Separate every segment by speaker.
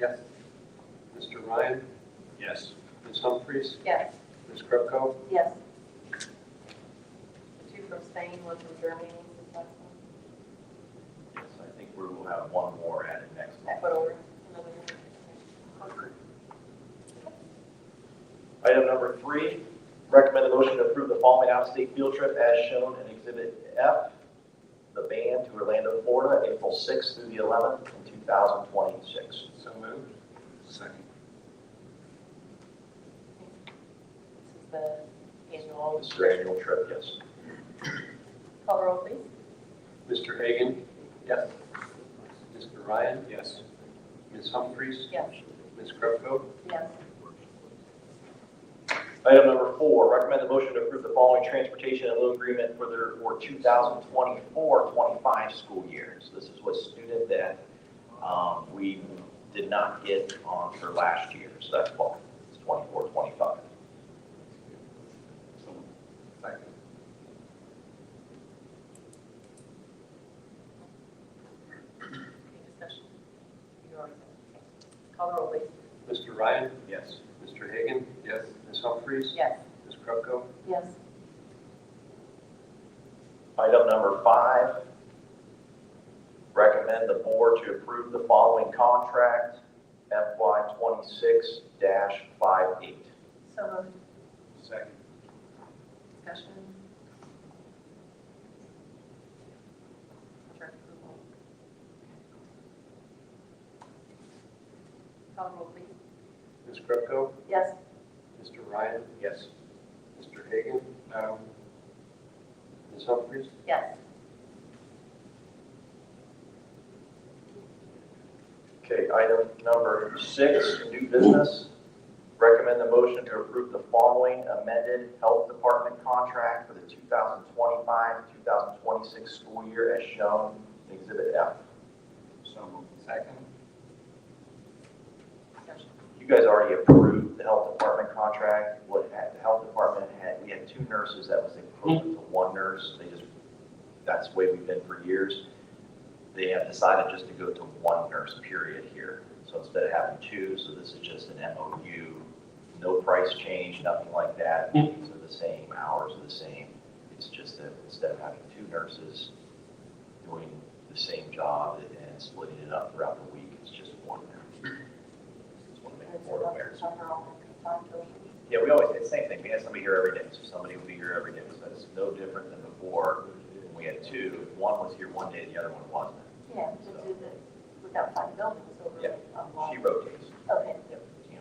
Speaker 1: Yes. Mr. Ryan?
Speaker 2: Yes.
Speaker 1: Ms. Humphries?
Speaker 3: Yes.
Speaker 1: Ms. Krupko?
Speaker 3: Yes. Two from Spain, one from Germany, is that one?
Speaker 2: Yes, I think we will have one more added next month.
Speaker 3: Ecuador, another
Speaker 2: Item number three, recommend a motion to approve the following out-of-state field trip as shown in Exhibit F, the band to Orlando, Florida, April 6th through the 11th in 2026.
Speaker 1: So moved. Second.
Speaker 3: This is the annual.
Speaker 2: This is your annual trip, yes.
Speaker 3: Call roll, please.
Speaker 1: Mr. Hagan?
Speaker 2: Yes.
Speaker 1: Mr. Ryan?
Speaker 2: Yes.
Speaker 1: Ms. Humphries?
Speaker 3: Yes.
Speaker 1: Ms. Krupko?
Speaker 3: Yes.
Speaker 2: Item number four, recommend a motion to approve the following transportation and loan agreement for their, for 2024-25 school year. So this is what student that um, we did not get on for last year, so that's why it's 24-25.
Speaker 1: Second.
Speaker 3: Any discussion? You already said. it. Call roll, please.
Speaker 1: Mr. Ryan?
Speaker 2: Yes.
Speaker 1: Mr. Hagan? Yes. Ms. Humphries?
Speaker 3: Yes.
Speaker 1: Ms. Krupko?
Speaker 3: Yes.
Speaker 2: Item number five, recommend the board to approve the following contract, FY 26-58.
Speaker 3: So moved.
Speaker 1: Second.
Speaker 3: Discussion. Contract approval. Call roll, please.
Speaker 1: Ms. Krupko?
Speaker 3: Yes.
Speaker 1: Mr. Ryan?
Speaker 2: Yes.
Speaker 1: Mr. Hagan? No. Ms. Humphries?
Speaker 3: Yes.
Speaker 2: Okay, item number six, new business. Recommend the motion to approve the following amended health department contract for the 2025-2026 school year as shown in Exhibit F.
Speaker 1: So moved. Second.
Speaker 3: Discussion.
Speaker 2: You guys already approved the health department contract. What had, the health department had, we had two nurses that was equivalent to one nurse. They just, that's the way we've been for years. They have decided just to go to one nurse period here. So instead of having two, so this is just an MOU, no price change, nothing like that. These are the same, hours are the same. It's just that instead of having two nurses doing the same job and splitting it up throughout the week, it's just one nurse. Just want to make the board aware. Yeah, we always, it's the same thing, we had somebody here every day, so somebody would be here every day, so it's no different than before, when we had two, one was here one day, the other one wasn't.
Speaker 3: Yeah, to do the, without five buildings over
Speaker 2: Yeah.
Speaker 3: a lot.
Speaker 2: She rotates.
Speaker 3: Okay.
Speaker 2: Yep. you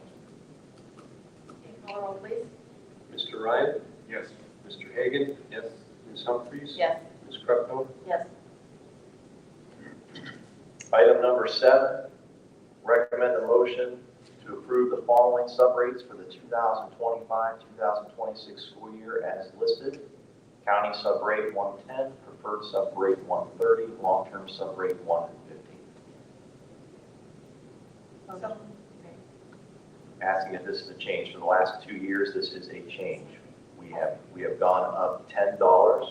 Speaker 2: know.
Speaker 3: Call roll, please.
Speaker 1: Mr. Ryan?
Speaker 4: Yes.
Speaker 1: Mr. Hagan? Yes. Ms. Humphries?
Speaker 3: Yes.
Speaker 1: Ms. Krupko?
Speaker 3: Yes.
Speaker 2: Item number seven, recommend a motion to approve the following subrates for the 2025, 2026 school year as listed. County subrate 110, preferred subrate 130, long-term subrate 150.
Speaker 3: So.
Speaker 2: asking if this is a change. For the last two years, this is a change. We have, we have gone up ten dollars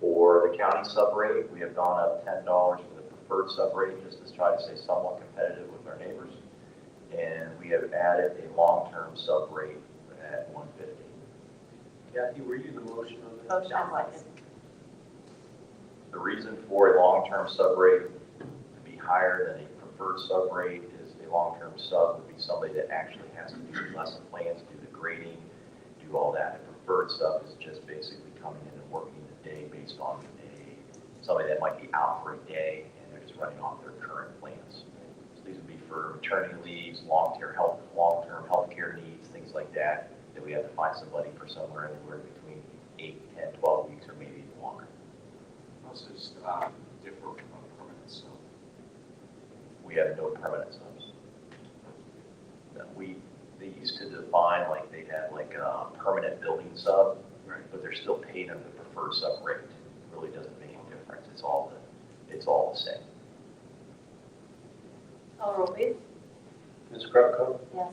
Speaker 2: for the county subrate. We have gone up ten dollars for the preferred subrate, just to try to stay somewhat competitive with our neighbors. And we have added a long-term subrate at one fifty.
Speaker 1: Kathy, were you the motion on that?
Speaker 3: Motion, like,
Speaker 2: The reason for a long-term subrate to be higher than a preferred subrate is a long-term sub would be somebody that actually has to do lesson plans, do the grading, do all that. A preferred sub is just basically coming in and working the day based on a, somebody that might be out for a day and they're just running off their current plans. So these would be for maternity leaves, long-term health, long-term healthcare needs, things like that, that we have to find somebody for somewhere anywhere between eight, 10, 12 weeks or maybe even longer.
Speaker 4: Most is um, differ from permanent, so.
Speaker 2: we have no permanent subs. That We, they used to define like they had like a permanent building sub,
Speaker 4: Right.
Speaker 2: but they're still paid under the preferred sub rate. It Really doesn't make any difference, it's all, the it's all the same.
Speaker 3: call roll, please.
Speaker 1: Ms. Krupko?
Speaker 3: Yes.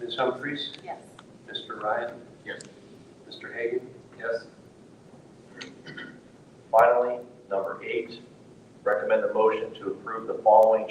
Speaker 1: Ms. Humphries?
Speaker 3: Yes.
Speaker 1: Mr. Ryan?
Speaker 4: Yes.
Speaker 1: Mr. Hagan? Yes.
Speaker 2: Finally, number eight, recommend a motion to approve the following